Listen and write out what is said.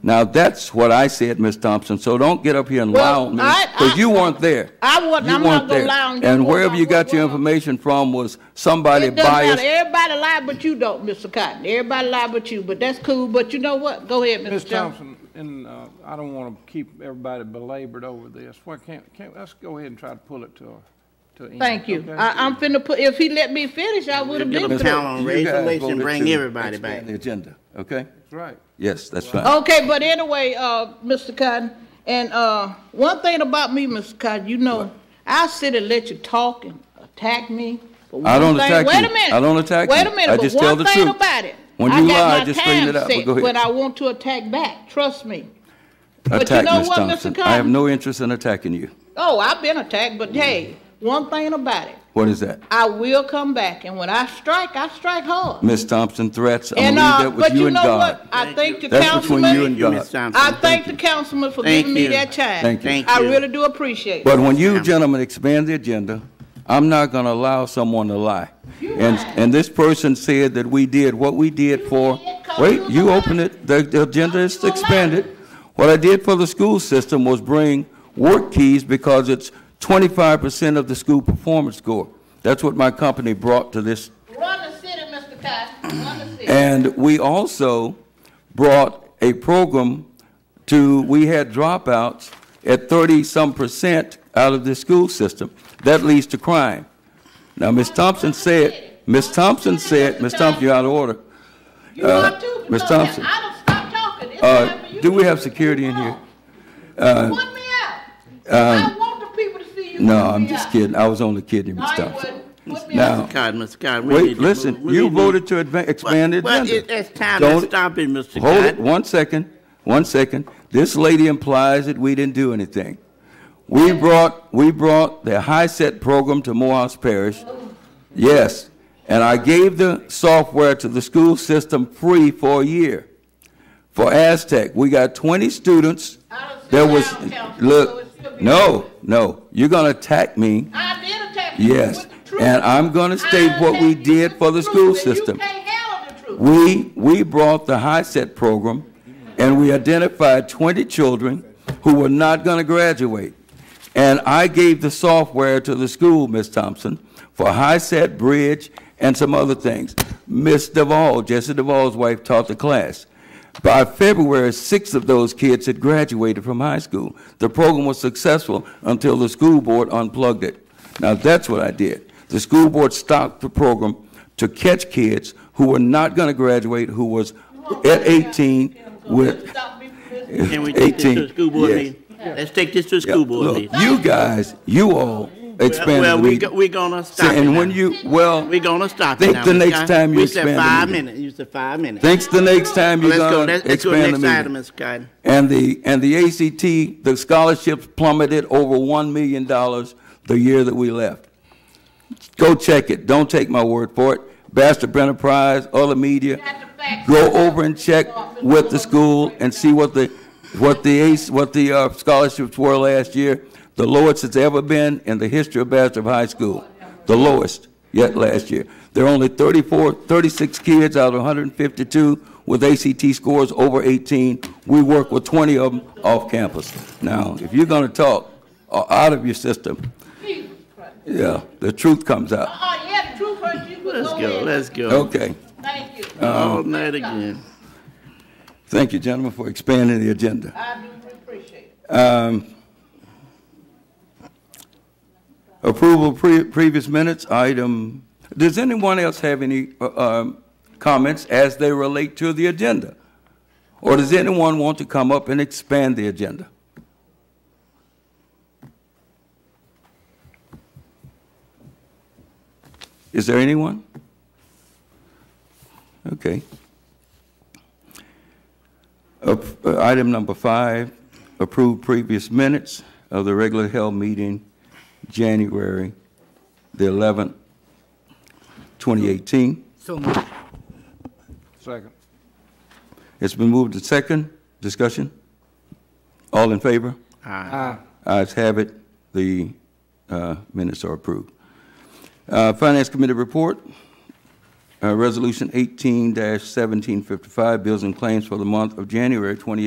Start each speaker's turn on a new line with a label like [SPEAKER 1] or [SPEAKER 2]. [SPEAKER 1] Now, that's what I said, Ms. Thompson, so don't get up here and lie
[SPEAKER 2] Well,
[SPEAKER 1] on me,
[SPEAKER 2] I-
[SPEAKER 1] because
[SPEAKER 2] I-
[SPEAKER 1] you weren't there.
[SPEAKER 2] I wasn't-
[SPEAKER 1] You
[SPEAKER 2] I'm not
[SPEAKER 1] weren't
[SPEAKER 2] gonna
[SPEAKER 1] there.
[SPEAKER 2] lie on you
[SPEAKER 1] And
[SPEAKER 2] what
[SPEAKER 1] wherever
[SPEAKER 2] I
[SPEAKER 1] you got your
[SPEAKER 2] was.
[SPEAKER 1] information from was somebody
[SPEAKER 2] It doesn't matter.
[SPEAKER 1] biased.
[SPEAKER 2] Everybody lie but you don't, Mr. Cotton. Everybody lie but you, but that's cool. But you know what? Go ahead, Mr.
[SPEAKER 3] Ms.
[SPEAKER 2] Jones.
[SPEAKER 3] Thompson, and uh, I don't want to keep everybody belabored over this. Why can't, can't, let's go ahead and try to pull it to, a- to an end.
[SPEAKER 2] Thank you.
[SPEAKER 3] okay?
[SPEAKER 2] I, I'm finna put, if he let me finish, I would have been
[SPEAKER 1] Ms.
[SPEAKER 2] through.
[SPEAKER 1] Thompson,
[SPEAKER 4] on
[SPEAKER 1] you
[SPEAKER 4] race
[SPEAKER 1] guys
[SPEAKER 4] relations,
[SPEAKER 1] voted
[SPEAKER 4] bring
[SPEAKER 1] to
[SPEAKER 4] everybody back.
[SPEAKER 1] expand The agenda, okay?
[SPEAKER 3] That's right.
[SPEAKER 1] Yes, that's fine.
[SPEAKER 2] Okay, but anyway, uh, Mr. Cotton, and, uh, one thing about me, Mr. Cotton, you know, I sit and let you talk and attack me. but
[SPEAKER 1] I don't
[SPEAKER 2] one thing-
[SPEAKER 1] attack
[SPEAKER 2] wait
[SPEAKER 1] you.
[SPEAKER 2] a minute.
[SPEAKER 1] I don't attack
[SPEAKER 2] Wait
[SPEAKER 1] you.
[SPEAKER 2] a
[SPEAKER 1] I
[SPEAKER 2] minute, but
[SPEAKER 1] just tell
[SPEAKER 2] one
[SPEAKER 1] the
[SPEAKER 2] thing
[SPEAKER 1] truth.
[SPEAKER 2] about it.
[SPEAKER 1] When
[SPEAKER 2] I
[SPEAKER 1] you
[SPEAKER 2] got
[SPEAKER 1] lie,
[SPEAKER 2] my
[SPEAKER 1] just straighten
[SPEAKER 2] time
[SPEAKER 1] it out, but
[SPEAKER 2] set
[SPEAKER 1] go ahead.
[SPEAKER 2] When I want to attack back, trust me. you
[SPEAKER 1] Attack,
[SPEAKER 2] know
[SPEAKER 1] Ms.
[SPEAKER 2] what, Mr.
[SPEAKER 1] Thompson. I have
[SPEAKER 2] Cotton?
[SPEAKER 1] no interest in attacking you.
[SPEAKER 2] Oh, I've been attacked,
[SPEAKER 1] Mm-hmm.
[SPEAKER 2] but hey, one thing about it,
[SPEAKER 1] What is that?
[SPEAKER 2] I will come back, and when I strike, I strike hard.
[SPEAKER 1] Ms. Thompson, threats, I'm
[SPEAKER 2] And,
[SPEAKER 1] gonna
[SPEAKER 2] uh,
[SPEAKER 1] leave that with
[SPEAKER 2] but
[SPEAKER 1] you
[SPEAKER 2] you
[SPEAKER 1] and
[SPEAKER 2] know
[SPEAKER 1] God.
[SPEAKER 2] what? I thank the
[SPEAKER 1] That's between you and
[SPEAKER 2] councilman.
[SPEAKER 4] Thank you,
[SPEAKER 1] God.
[SPEAKER 4] Ms. Thompson.
[SPEAKER 2] I thank the
[SPEAKER 4] you.
[SPEAKER 2] councilman for
[SPEAKER 4] Thank
[SPEAKER 2] giving me
[SPEAKER 4] you.
[SPEAKER 2] that time.
[SPEAKER 1] Thank you.
[SPEAKER 4] Thank
[SPEAKER 2] I
[SPEAKER 4] you.
[SPEAKER 2] really do appreciate it.
[SPEAKER 1] But when you gentlemen expand the agenda, I'm not going to allow someone to lie. And, and this person said that we did what we did for,
[SPEAKER 2] did 'cause
[SPEAKER 1] wait,
[SPEAKER 2] you was
[SPEAKER 1] you
[SPEAKER 2] a liar.
[SPEAKER 1] opened it, the, the agenda is
[SPEAKER 2] You a liar.
[SPEAKER 1] expanded. What I did for the school system was bring work keys because it's twenty-five percent of the school performance score. That's what my company brought to this
[SPEAKER 2] Run the city, Mr. Cotton, run the city.
[SPEAKER 1] and we also brought a program to, we had dropouts at 30-some percent out of the school system. That leads to crime. Now, Ms. Thompson said, Ms. Thompson said, Ms. Thompson, you're out of order.
[SPEAKER 2] You are too,
[SPEAKER 1] Ms.
[SPEAKER 2] because
[SPEAKER 1] uh, Thompson.
[SPEAKER 2] I don't stop talking. It's
[SPEAKER 1] Uh,
[SPEAKER 2] time for you
[SPEAKER 1] do
[SPEAKER 2] to
[SPEAKER 1] we have
[SPEAKER 2] get
[SPEAKER 1] security in here? Uh,
[SPEAKER 2] along. Put me out. I want the people to see you.
[SPEAKER 1] No,
[SPEAKER 2] put me
[SPEAKER 1] I'm just
[SPEAKER 2] out.
[SPEAKER 1] kidding. I was only kidding,
[SPEAKER 2] No,
[SPEAKER 1] Ms.
[SPEAKER 2] you
[SPEAKER 1] Thompson.
[SPEAKER 2] wouldn't. Put me
[SPEAKER 1] Now,
[SPEAKER 2] out.
[SPEAKER 4] Mr. Cotton, Mr. Cotton, we need
[SPEAKER 1] Wait,
[SPEAKER 4] to move-
[SPEAKER 1] listen,
[SPEAKER 4] we
[SPEAKER 1] you
[SPEAKER 4] need to-
[SPEAKER 1] voted to adva- expand the
[SPEAKER 4] Well,
[SPEAKER 1] agenda.
[SPEAKER 4] it- it's time to
[SPEAKER 1] Don't-
[SPEAKER 4] stop it, Mr.
[SPEAKER 1] Hold it,
[SPEAKER 4] Cotton.
[SPEAKER 1] one second, one second. This lady implies that we didn't do anything. We brought, we brought the high set program to Morehouse Parish. Yes, and I gave the software to the school system free for a year. For Aztec, we got twenty students.
[SPEAKER 2] I don't see
[SPEAKER 1] There
[SPEAKER 2] how,
[SPEAKER 1] was,
[SPEAKER 2] Councilman, so it should
[SPEAKER 1] look,
[SPEAKER 2] be-
[SPEAKER 1] no, no, you're gonna attack me.
[SPEAKER 2] I did attack you
[SPEAKER 1] Yes,
[SPEAKER 2] with the truth.
[SPEAKER 1] and I'm gonna
[SPEAKER 2] I
[SPEAKER 1] state what we
[SPEAKER 2] attacked you
[SPEAKER 1] did
[SPEAKER 2] with
[SPEAKER 1] for the
[SPEAKER 2] truth,
[SPEAKER 1] school
[SPEAKER 2] and you
[SPEAKER 1] system.
[SPEAKER 2] can't handle the truth.
[SPEAKER 1] We, we brought the high set program, and we identified 20 children who were not going to graduate. And I gave the software to the school, Ms. Thompson, for high set, bridge, and some other things. Ms. Duvall, Jesse Duvall's wife, taught the class. By February, six of those kids had graduated from high school. The program was successful until the school board unplugged it. Now, that's what I did. The school board stopped the program to catch kids who were not going to graduate, who was at 18 with
[SPEAKER 2] Stop me from this.
[SPEAKER 4] Can we take this to
[SPEAKER 1] 18,
[SPEAKER 4] the school board
[SPEAKER 1] yes.
[SPEAKER 4] meeting? Let's take this to the school board
[SPEAKER 1] Look,
[SPEAKER 4] meeting.
[SPEAKER 1] you guys, you all expanded the
[SPEAKER 4] Well, we,
[SPEAKER 1] meeting.
[SPEAKER 4] go- we gonna stop it
[SPEAKER 1] And
[SPEAKER 4] now.
[SPEAKER 1] when you, well,
[SPEAKER 4] We gonna stop it
[SPEAKER 1] Think
[SPEAKER 4] now.
[SPEAKER 1] the
[SPEAKER 4] Ms.
[SPEAKER 1] next
[SPEAKER 4] Cotton.
[SPEAKER 1] time you
[SPEAKER 4] We
[SPEAKER 1] expand
[SPEAKER 4] said
[SPEAKER 1] the
[SPEAKER 4] five
[SPEAKER 1] meeting.
[SPEAKER 4] minutes, you said five minutes.
[SPEAKER 1] thanks the next time you're
[SPEAKER 4] Let's go,
[SPEAKER 1] going
[SPEAKER 4] let's
[SPEAKER 1] to
[SPEAKER 4] let's go to the
[SPEAKER 1] expand the
[SPEAKER 4] next
[SPEAKER 1] meeting.
[SPEAKER 4] item, Ms. Cotton.
[SPEAKER 1] And the, and the ACT, the scholarships plummeted over $1 million the year that we left. Go check it. Don't take my word for it. Bastard Enterprise, other media. Go over and check with the school and see what the, what the ace, what the uh, scholarships were last year. The lowest it's ever been in the history of Bastrop High School. The lowest yet last year. There are only 34, 36 kids out of 152 with ACT scores over 18. We work with 20 of them off campus. Now, if you're going to talk uh, out of your system,
[SPEAKER 2] Jesus Christ.
[SPEAKER 1] yeah, the truth comes out.
[SPEAKER 2] Oh, yeah, the truth hurts you, but
[SPEAKER 4] Let's go,
[SPEAKER 2] ahead.
[SPEAKER 4] let's go.
[SPEAKER 1] Okay.
[SPEAKER 2] Thank you.
[SPEAKER 1] Uh,
[SPEAKER 4] All night again.
[SPEAKER 1] Thank you, gentlemen, for expanding the agenda.
[SPEAKER 2] I do appreciate it.
[SPEAKER 1] Approval of pre- previous minutes, item, does anyone else have any uh, um, comments as they relate to the agenda? Or does anyone want to come up and expand the agenda? Is there anyone? Okay. Ap- uh, Item number five, approve previous minutes of the regular held meeting, January the 11th, 2018.
[SPEAKER 3] Second.
[SPEAKER 1] It's been moved to second. Discussion? All in favor? Ayes have it. The uh, minutes are approved. Uh, Finance Committee report, uh, Resolution 18-1755, bills and claims for the month of January 2018.